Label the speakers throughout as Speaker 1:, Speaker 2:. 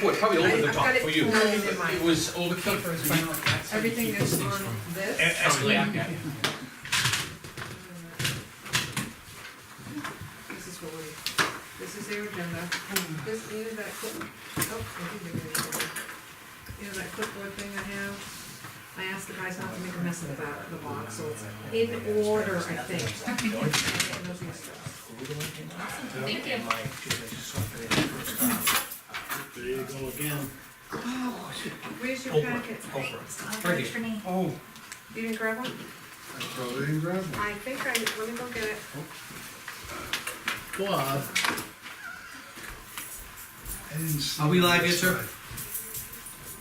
Speaker 1: Boy, it's probably over the
Speaker 2: I've
Speaker 1: top
Speaker 2: got it
Speaker 1: for you.
Speaker 2: formatted in my
Speaker 1: It was overkill
Speaker 2: paper
Speaker 1: for
Speaker 2: in
Speaker 1: you.
Speaker 2: front of me. Everything that's on this. This is what we, this is their agenda. This, you know that clip, oh, I did give it to you. You know that clipboard thing I have? I asked the guys not to make a mess of the back of the box, so it's in order, I think. And those extras.
Speaker 3: Thank you.
Speaker 4: There you go again.
Speaker 2: Where's your
Speaker 1: Oprah,
Speaker 2: packet?
Speaker 1: Oprah.
Speaker 3: Thank you.
Speaker 4: Oh.
Speaker 2: You didn't grab one?
Speaker 4: I probably didn't grab one.
Speaker 2: I think I, let me go get it.
Speaker 4: Bob. I didn't see.
Speaker 5: Are we live
Speaker 4: that
Speaker 5: yet, sir?
Speaker 4: side.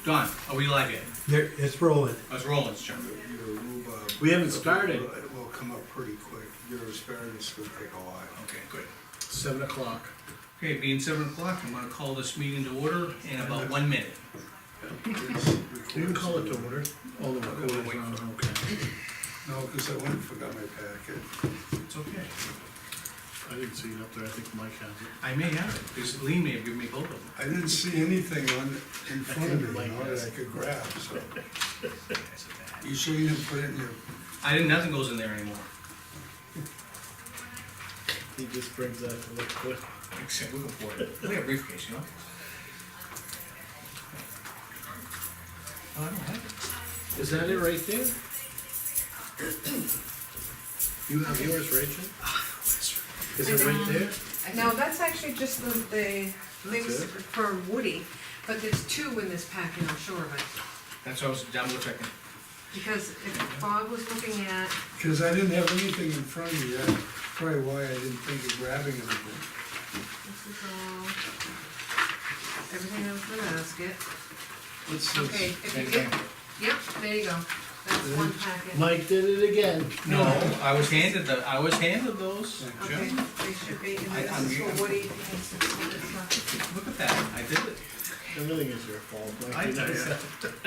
Speaker 5: Don, are we live yet? Oh,
Speaker 6: There, it's rolling.
Speaker 5: That's Roland's turn.
Speaker 4: Your rhubarb.
Speaker 7: We haven't started.
Speaker 4: It will come up pretty quick. Your asparagus will take a while.
Speaker 5: Okay, good.
Speaker 7: Seven o'clock.
Speaker 5: Okay, being seven o'clock, I'm gonna call this meeting to order in about one minute.
Speaker 7: You can call it to order. All the recorders
Speaker 5: wait
Speaker 7: on, okay.
Speaker 4: No, because I went and forgot my packet.
Speaker 5: It's okay.
Speaker 7: I didn't see it up there, I think Mike has it.
Speaker 5: I may have it, because Lee may have given me both of them.
Speaker 4: I didn't see anything on, in front of me, you know, that I could grab, so. You sure you didn't put it in your,
Speaker 5: I didn't, nothing goes in there anymore.
Speaker 7: He just brings that to look good.
Speaker 5: Except we for it. We have a briefcase, you know? Oh, I don't have it.
Speaker 7: Is that it right there? You have yours, Rachel? Is it right there?
Speaker 2: No, that's actually just the, the things
Speaker 7: it?
Speaker 2: for Woody, but there's two in this packet, I'm sure of it.
Speaker 5: That's what I was double checking.
Speaker 2: Because if Bob was looking at,
Speaker 4: because I didn't have anything in front of me, that's probably why I didn't think of grabbing anything.
Speaker 2: this is all, everything that was in the basket.
Speaker 4: What's
Speaker 2: Okay,
Speaker 4: this?
Speaker 2: if you get, yep, there you go, that's one packet.
Speaker 7: Mike did it again.
Speaker 5: No, I was handed the, I was handed those.
Speaker 2: Okay, they should be, and
Speaker 5: I-
Speaker 2: then
Speaker 5: I'm-
Speaker 2: this is for Woody. This
Speaker 5: Look at that, I did it.
Speaker 7: Everything is your fault, Mike.
Speaker 5: I
Speaker 7: You know
Speaker 5: did
Speaker 7: that.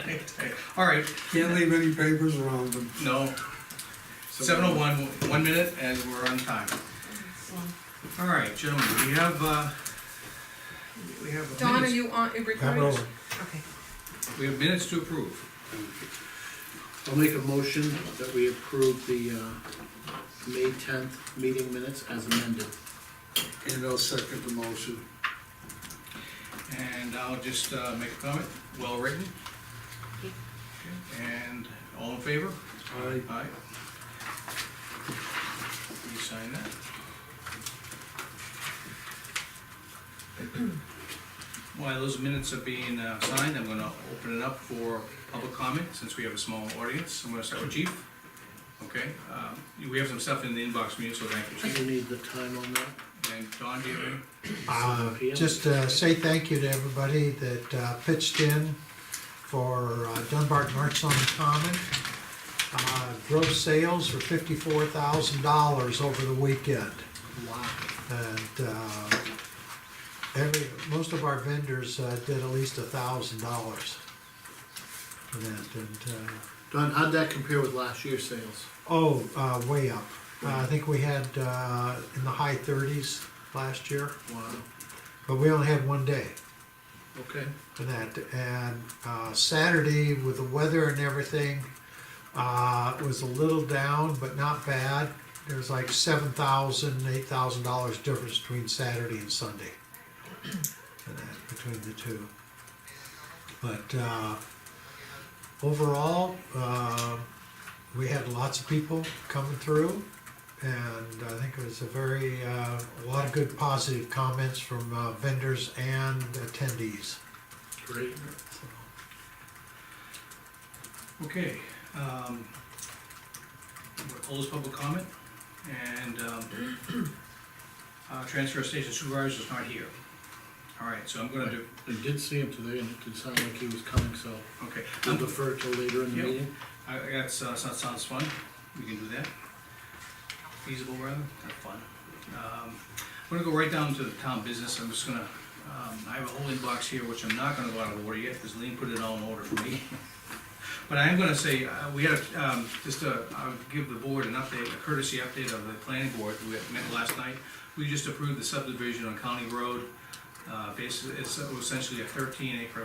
Speaker 5: it. All right,
Speaker 4: Can't leave any papers around them.
Speaker 5: no. Seven oh one, one minute, and we're on time.
Speaker 2: one.
Speaker 5: All right, gentlemen, we have, uh, we have minutes.
Speaker 2: Dawn, are you on, you
Speaker 6: I'm
Speaker 2: recording?
Speaker 6: rolling.
Speaker 2: Okay.
Speaker 5: We have minutes to approve.
Speaker 7: I'll make a motion that we approve the, uh, May tenth meeting minutes as amended.
Speaker 4: And I'll second the motion.
Speaker 5: And I'll just uh, make a comment, well written. And all in favor?
Speaker 4: Aye.
Speaker 5: Aye. You sign that? While those minutes are being uh, signed, I'm gonna open it up for public comment, since we have a small audience. I'm gonna start with Chief. Okay, um, we have some stuff in the inbox from you, so thank you, Chief.
Speaker 7: Do you need the time on that?
Speaker 5: And Don, do you have any?
Speaker 6: Uh,
Speaker 7: Sophia?
Speaker 6: Just uh, say thank you to everybody that uh, pitched in for uh, Dunbarton Arts on the Common. Uh, Gross sales were fifty-four thousand dollars over the weekend.
Speaker 7: Wow.
Speaker 6: And uh, every, most of our vendors uh, did at least a thousand dollars. for that. And, uh,
Speaker 7: Don, how'd that compare with last year's sales?
Speaker 6: oh, uh, way up. Uh, I think we had uh, in the high thirties last year.
Speaker 7: Wow,
Speaker 6: But we only had one day
Speaker 7: okay.
Speaker 6: for that. And uh, Saturday, with the weather and everything, uh, it was a little down, but not bad. There's like seven thousand, eight thousand dollars difference between Saturday and Sunday, and that between the two. But uh, overall, uh, we had lots of people coming through, and I think it was a very uh, a lot of good positive comments from uh, vendors and attendees.
Speaker 7: Great.
Speaker 5: Okay, um, we'll close public comment, and, um, uh, transfer station supervisor is not here. All right, so I'm gonna do,
Speaker 7: I did see him today and it did sound like he was coming, so
Speaker 5: okay,
Speaker 7: we'll defer till later in the
Speaker 5: Yep.
Speaker 7: meeting.
Speaker 5: I, I guess, uh, that sounds fun, we can do that. Feasible rather, kind of fun. Um, I'm gonna go right down to the town business, I'm just gonna, um, I have a whole inbox here, which I'm not gonna go out of order yet, because Lean put it all in order for me. But I am gonna say, uh, we had, a, um, just uh I'll give the board an update, a courtesy update of the planning board, we had met last night. We just approved the subdivision on County Road, Uh, basically, it's essentially a thirteen acre